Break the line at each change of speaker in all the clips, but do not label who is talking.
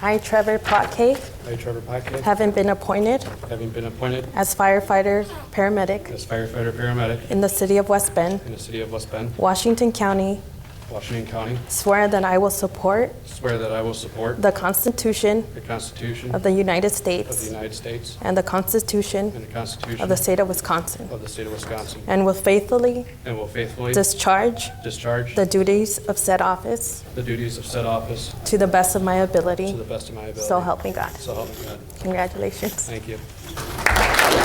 I, Trevor Potcake,
I, Trevor Pockett,
having been appointed
having been appointed
as firefighter paramedic
as firefighter paramedic
in the city of West Bend,
in the city of West Bend,
Washington County,
Washington County,
swear that I will support
swear that I will support
the Constitution
the Constitution
of the United
of the
States
United States
and the Constitution
and the Constitution
of the state of Wisconsin,
of the state of Wisconsin,
and will faithfully
and will faithfully
discharge
discharge
the duties of said office
the duties of said office
to the best of my
to
ability.
the best of my ability.
So help me God.
So help me God.
Congratulations.
Thank you.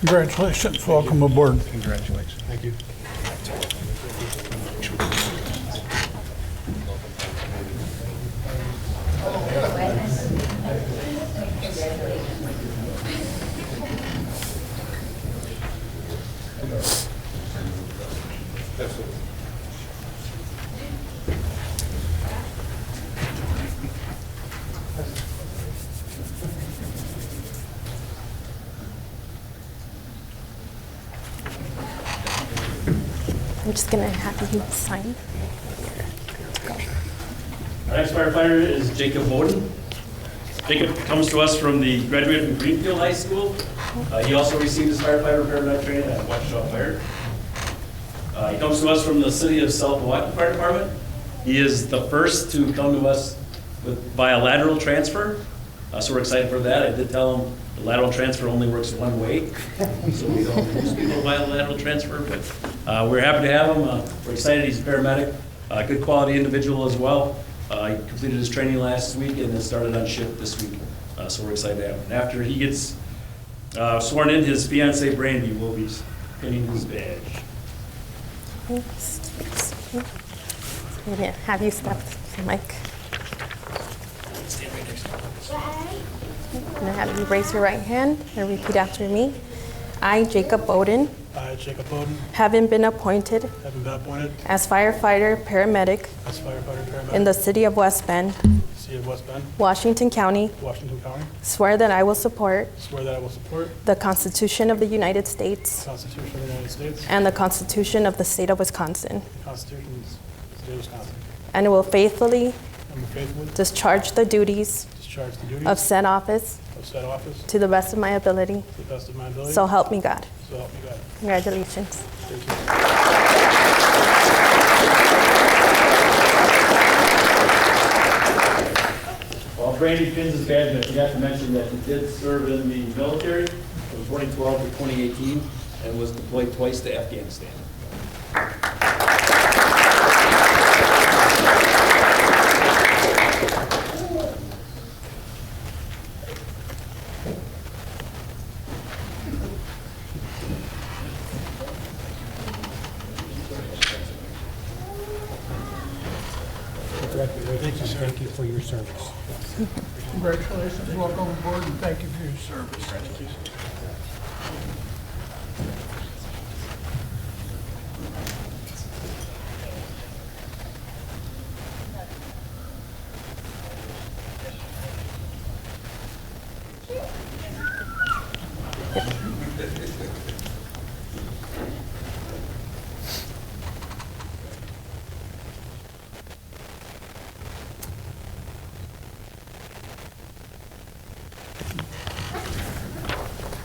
Congratulations, welcome aboard.
Congratulations. Thank you.
I'm just going to have you sign.
Our next firefighter is Jacob Bowden. Jacob comes to us from the, graduated from Greenfield High School. Uh, He also received his firefighter paramedic training at Waukesha Fire. Uh, He comes to us from the city of South Milwaukee Fire Department. He is the first to come to us with, by a lateral transfer, Uh, so we're excited for that. I did tell him the lateral transfer only works one way, so we don't lose people by a lateral transfer, but uh, we're happy to have him. Uh, We're excited, he's a paramedic, a good quality individual as well. Uh, He completed his training last week and then started on shift this week, Uh, so we're excited to have him. And After he gets uh, sworn in, his fiancee Brandy will be pinning his badge.
Thanks. Thanks. I'm gonna Have you step to the mic? I'm gonna have you raise your right hand and repeat after me. I, Jacob Bowden,
I, Jacob Bowden,
having been appointed
having been appointed
as firefighter paramedic
as firefighter
in
paramedic
the city of West Bend,
in the city of West Bend,
Washington County,
Washington County,
swear that I will support
swear that I will support
the Constitution of the United
the
States
Constitution of the United States
and the Constitution of the state of Wisconsin,
and the Constitution of the State of Wisconsin,
and will faithfully
and will faithfully
discharge the duties
discharge the
of
duties
said office
of said office
to the best of my ability.
to the best of my ability.
So help me God.
So help me God.
Congratulations.
Thank you.
While Brandy pins his badge, I forgot to mention that he did serve in the military from 2012 to 2018 and was deployed twice to Afghanistan.
Thank you, Thank you for your service.
Congratulations, welcome aboard, and thank you for your service.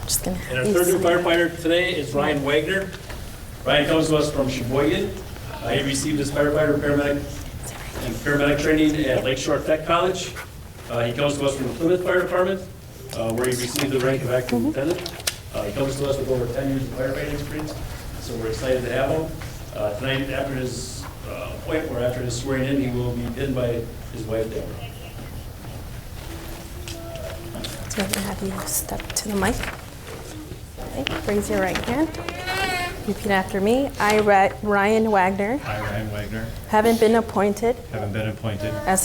Just gonna have
And our
you
third new
sign.
firefighter today is Ryan Wagner. Ryan comes to us from Sheboygan. Uh, He received his firefighter paramedic and paramedic training at Lake Shore Tech College. Uh, He comes to us from the Plymouth Fire Department, uh, where he received the rank of acting lieutenant. Uh, He comes to us with over 10 years of firefighting experience, so we're excited to have him. Uh, Tonight, after his uh, appointment, or after his swearing in, he will be pinned by his wife, Deborah.
Just gonna have you step to the mic. Okay, Raise your right hand. Repeat after me. I, Ra- Ryan Wagner,
I, Ryan Wagner,
having been appointed
having been appointed
as